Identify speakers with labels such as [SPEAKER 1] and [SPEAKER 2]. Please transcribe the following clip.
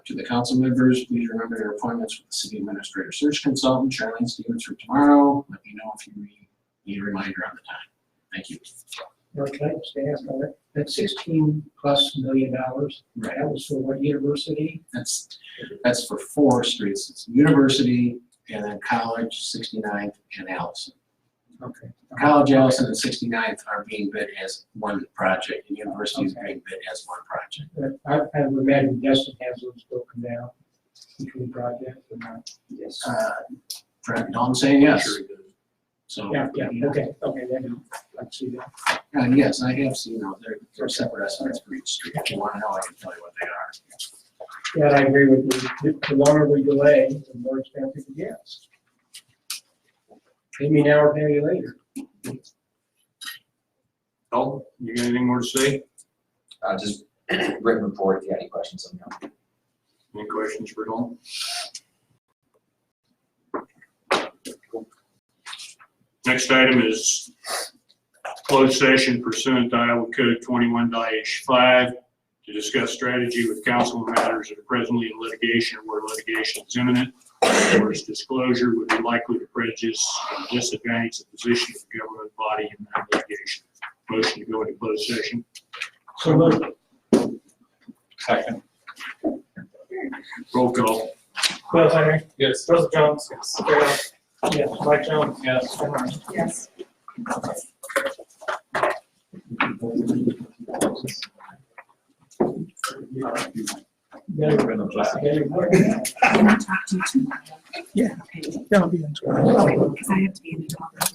[SPEAKER 1] To the council members, please remember your appointments with the city administrator search consultant, Charlene Stevens, for tomorrow. Let me know if you need- need a reminder on the time. Thank you.
[SPEAKER 2] Mark, can I just ask on that, that sixteen plus million dollars,
[SPEAKER 1] Right.
[SPEAKER 2] that was for what university?
[SPEAKER 1] That's, that's for four streets. It's University and then College, 69th and Allison.
[SPEAKER 2] Okay.
[SPEAKER 1] College, Allison, and 69th are being bid as one project and University is being bid as one project.
[SPEAKER 2] But I, I would imagine Destin has those broken down between projects and not. Yes.
[SPEAKER 1] Uh, Brad, no, I'm saying yes. So.
[SPEAKER 2] Yeah, yeah, okay, okay, then I see that.
[SPEAKER 1] Uh, yes, I have seen those. They're, they're separate estimates for each street. If you want to know, I can tell you what they are.
[SPEAKER 2] Yeah, I agree with you. The longer we delay, the more expensive it gets. Pay me now or pay me later.
[SPEAKER 3] Dalton, you got anything more to say?
[SPEAKER 4] Uh, just written report if you got any questions on that.
[SPEAKER 3] Any questions for Dalton? Next item is closed session pursuant to Iowa Code twenty-one five to discuss strategy with council matters that are presently in litigation or where litigation is imminent. Or its disclosure would be likely to prejudice or disadvantage the position of the government body in that litigation. Motion to go into closed session.
[SPEAKER 2] So moved.
[SPEAKER 3] Second. Roll call.
[SPEAKER 5] Will Henry.
[SPEAKER 3] Yes.
[SPEAKER 5] Russell Jones. Darrell. Yes. Mike Jones.
[SPEAKER 3] Yes.
[SPEAKER 5] Jim Ryan.
[SPEAKER 6] Yes.
[SPEAKER 2] Then- then we're-
[SPEAKER 6] Can I talk to you tomorrow? Yeah. Okay,
[SPEAKER 5] Yeah, I'll be in.
[SPEAKER 6] because I have to be in